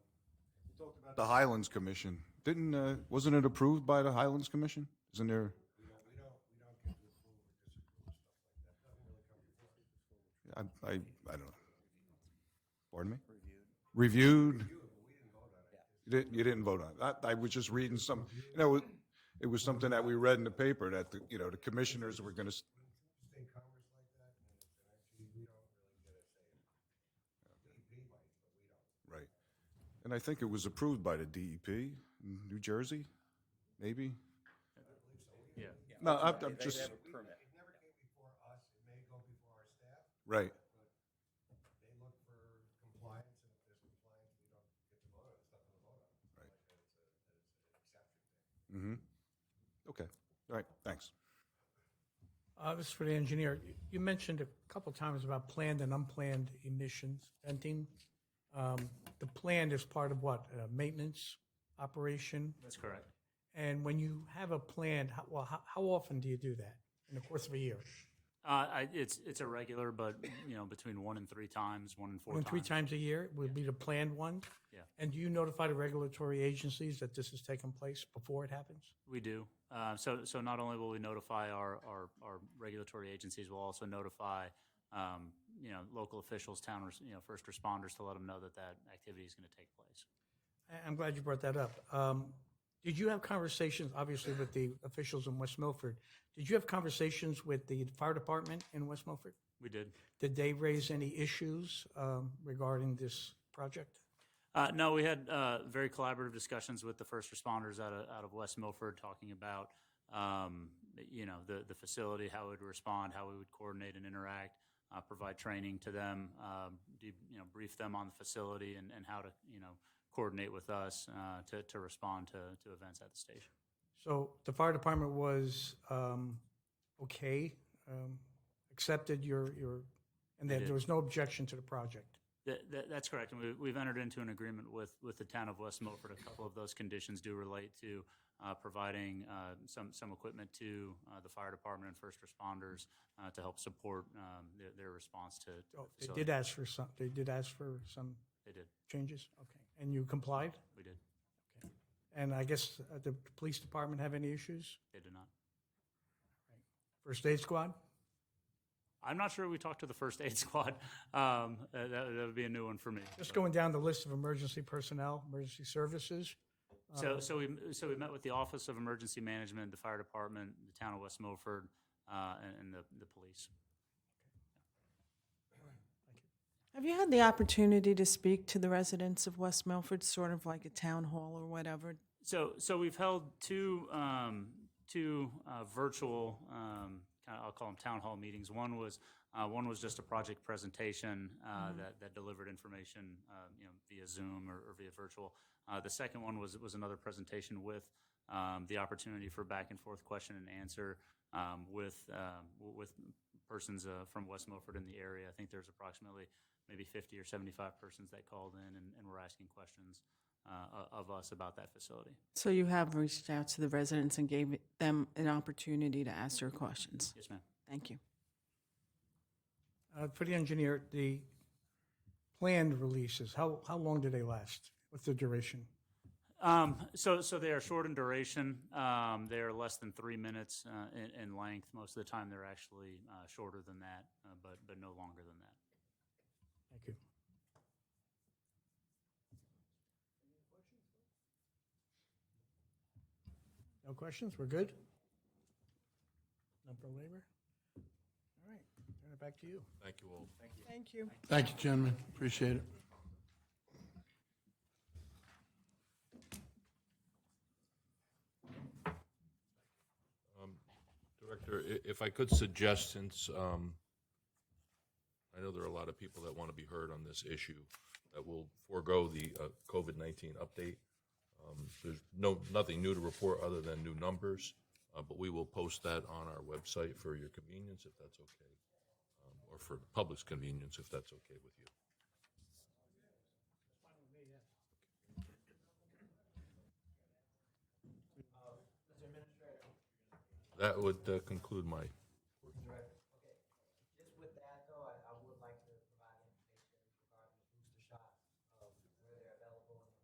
talked about the Highlands Commission. Didn't, uh, wasn't it approved by the Highlands Commission? Isn't there? I, I, I don't know. Pardon me? Reviewed? You didn't, you didn't vote on it. I, I was just reading some, you know, it- it was something that we read in the paper that, the you know, the commissioners were gonna, s- Right. And I think it was approved by the DEP in New Jersey, maybe? Yeah. No, I'm, I'm just, right. Mm-hmm. Okay. All right, thanks. Uh, This is for the engineer. You- You mentioned a couple times about planned and unplanned emissions venting. Um, The planned is part of what? Uh, Maintenance operation? That's correct. And when you have a planned, how- well, how how often do you do that in the course of a year? Uh, I, it's, it's irregular, but, you know, between one and three times, one and four One, times. three times a year would be the planned one? Yeah. And do you notify the regulatory agencies that this has taken place before it happens? We do. Uh, so, so not only will we notify our, our, our regulatory agencies, we'll also notify, um, you know, local officials, town, res- you know, first responders to let them know that that activity is going to take place. I- I'm glad you brought that up. Um, Did you have conversations, obviously, with the officials in West Milford? Did you have conversations with the fire department in West Milford? We did. Did they raise any issues um, regarding this project? Uh, no, we had uh, very collaborative discussions with the first responders out of, out of West Milford, talking about um, you know the the facility, how we'd respond, how we would coordinate and interact, uh, provide training to them, um, de- you know, brief them on the facility and, and how to you know coordinate with us uh, to to respond to to events at the station. So the fire department was um, okay, um, accepted your, your, and that there was no objection to the project. That, that, that's correct, and we, we've entered into an agreement with, with the town of West Milford. A couple of those conditions do relate to uh, providing uh, some, some equipment to uh, the fire department and first responders uh, to help support um, their, their response to, to the Oh, They facility. did ask for some, they did ask for some They did, changes? Okay. And you complied? we did, And I guess uh, the police department have any issues? they did not. First aid squad? I'm not sure we talked to the first aid squad. Um, uh, that, that would be a new one for me. Just but- going down the list of emergency personnel, emergency services. So, so we, so we met with the Office of Emergency Management, the fire department, the town of West Milford, uh, and, and the, the police. Have you had the opportunity to speak to the residents of West Milford, sort of like a town hall or whatever? So, so we've held two, um, two uh, virtual, um, kind of, I'll call them town hall meetings. One was, uh, one was just a project presentation uh, that, that delivered information, uh, you know, via Zoom or, or via virtual. Uh, the second one was, was another presentation with um, the opportunity for back and forth question and answer um, with, um, w- with persons uh, from West Milford in the area. I think there's approximately maybe 50 or 75 persons that called in and, and were asking questions uh, o- of us about that facility. So you have reached out to the residents and gave them an opportunity to ask their questions. Yes, ma'am. Thank you. Uh, For the engineer, the planned releases, how, how long do they last? What's the duration? Um, so, so they are short in duration. Um, they are less than three minutes uh, in, in length. Most of the time, they're actually uh, shorter than that, uh, but but no longer than that. Thank you. No questions? We're good? No for labor? All right, turn it back to you. Thank you. Thank you, gentlemen. Appreciate it. Director, i- if I could suggest, since um, I know there are a lot of people that want to be heard on this issue, that we'll forego the uh, COVID-19 update. Um, There's no, nothing new to report other than new numbers, uh, but we will post that on our website for your convenience, if that's okay, um, or for the public's convenience, if that's okay with you. That would uh, conclude my